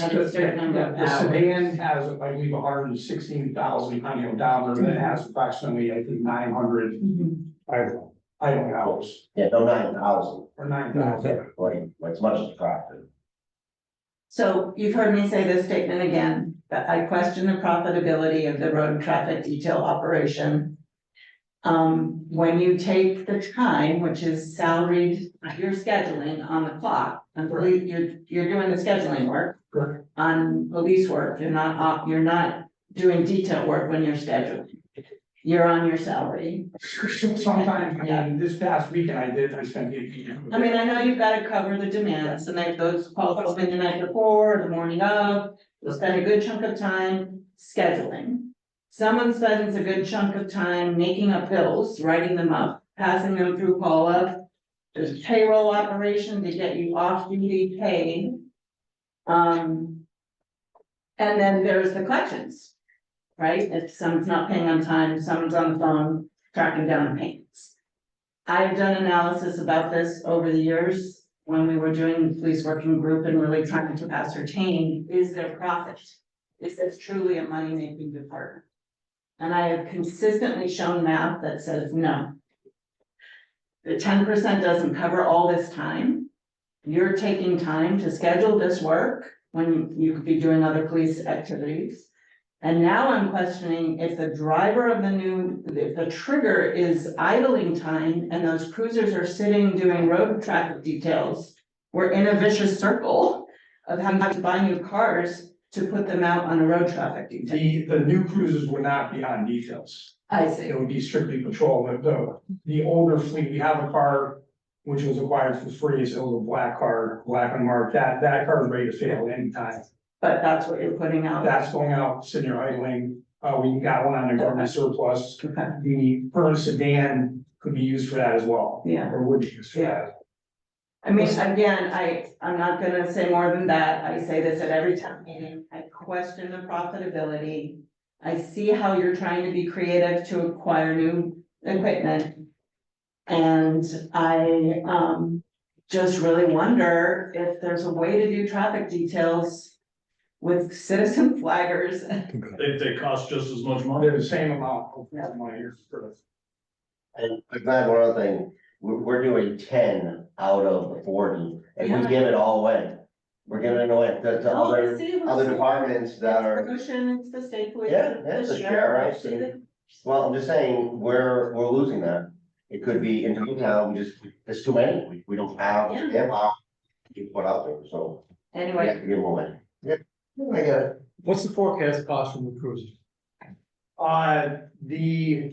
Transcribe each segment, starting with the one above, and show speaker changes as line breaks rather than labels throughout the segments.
another
the-
certain number of
The
hours.
sedan has, I believe, hundred and sixteen thousand on the odometer, and it has approximately, I think, nine hundred
Mhm.
idle.
idle hours,
Yeah, no nine thousand,
or nine
No,
thousand.
that-
like, as much as profit.
So you've heard me say this statement again, that I question the profitability of the road traffic detail operation. Um, when you take the time, which is salaried, you're scheduling on the clock, and police- you're, you're doing the scheduling work.
Correct.
On police work, you're not, op- you're not doing detail work when you're scheduling. You're on your salary.
Sometimes, I mean, this past weekend I did, I spent.
I mean, I know you've gotta cover the demands, and like those calls come in the night before, the morning of, you'll spend a good chunk of time scheduling. Someone spends a good chunk of time making up bills, writing them up, passing them through call up. There's payroll operation to get you off duty paid. Um. And then there's the collections. Right, if someone's not paying on time, someone's on the phone tracking down payments. I've done analysis about this over the years, when we were doing the police working group and really trying to ascertain, is there profit? Is this truly a money-making department? And I have consistently shown math that says no. The ten percent doesn't cover all this time. You're taking time to schedule this work when you could be doing other police activities. And now I'm questioning if the driver of the new, if the trigger is idling time and those cruisers are sitting doing road traffic details. We're in a vicious circle of having to buy new cars to put them out on a road traffic detail.
The, the new cruises would not be on details,
I see.
it would be strictly patrol, but the, the older fleet, we have a car. Which was acquired for free, so it was a black car, black and marked, that, that car is ready to fail anytime.
But that's what you're putting out.
That's going out, sitting there idling, uh, we got one on the government surplus,
Okay,
the current sedan could be used for that as well.
Yeah.
Or would be used for that.
I mean, again, I, I'm not gonna say more than that, I say this at every town meeting, I question the profitability. I see how you're trying to be creative to acquire new equipment. And I, um, just really wonder if there's a way to do traffic details with citizen flaggers.
They, they cost just as much money.
They're the same amount of money here for
And I'm glad one other thing, we're, we're doing ten out of the forty, and
Yeah.
we give it all away. We're giving it away to, to other, other departments that are.
Ocean, it's the state police.
Yeah, that's the sheriff,
it's the-
Well, I'm just saying, we're, we're losing that. It could be in town, we just, there's too many, we, we don't have,
Yeah.
they have, our- you put out there, so we
Anyway,
have to give them away. Yeah, I get it.
What's the forecast cost from the cruiser?
the. Uh, the.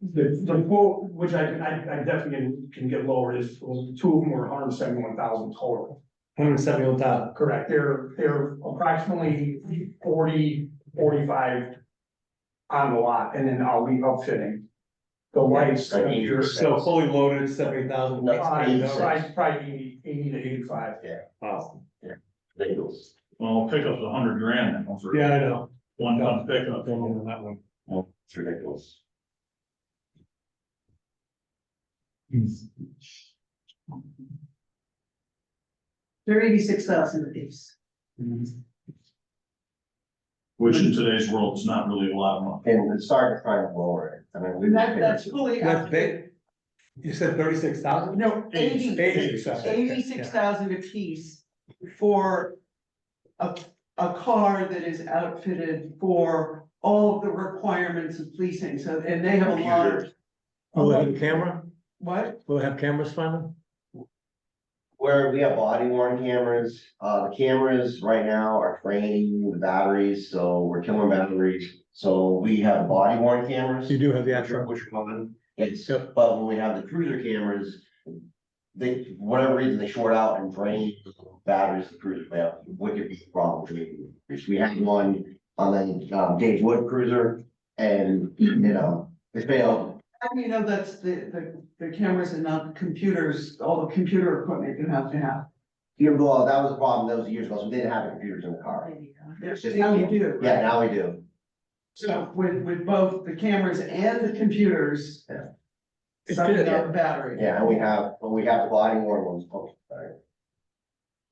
The, the quote, which I, I, I definitely can get lower is, well, two of them were hundred and seventy-one thousand total.
Hundred and seventy-one thousand.
Correct, they're, they're approximately 40, 45 on the lot, and then I'll be upfitting. The lights,
I mean,
your,
So fully loaded, seventy thousand.
No.
probably, probably eighty to eighty-five.
Wow.
They do.
Well, pickup's a hundred grand now for
Yeah, I know.
one
Don't
ton pickup.
go on that one.
Well, it's ridiculous.
They're eighty-six thousand a piece.
Which in today's world is not really a lot of money.
And it's hard to find a lower, end. I mean, we.
That, that's fully.
That's big. You said thirty-six thousand?
No, eighty,
Eighty-six thousand.
eighty-six thousand a piece for a, a car that is outfitted for all of the requirements of policing, so, and they have a lot.
Will it Oh, have a camera?
What?
Will it have cameras finally?
Where we have body worn cameras, uh, the cameras right now are draining the batteries, so we're killing batteries. So we have body worn cameras.
You do have the actual.
Which one? It's,
Yep.
but when we have the cruiser cameras, they, for whatever reason, they short out and drain the batteries of the cruiser, they have wicked big problems. with it. We had one on the, um, Dave Wood cruiser and, you know, it failed.
I mean, you know, that's the, the, the cameras and not computers, all the computer equipment you have to have.
You know, well, that was a problem, that was years ago, so we didn't have computers in the car.
There's just how you do.
Yeah, now we do.
So with, with both the cameras and the computers.
Yeah.
Sucking out the battery.
Yeah, and we have, but we have the body worn ones, oh, sorry.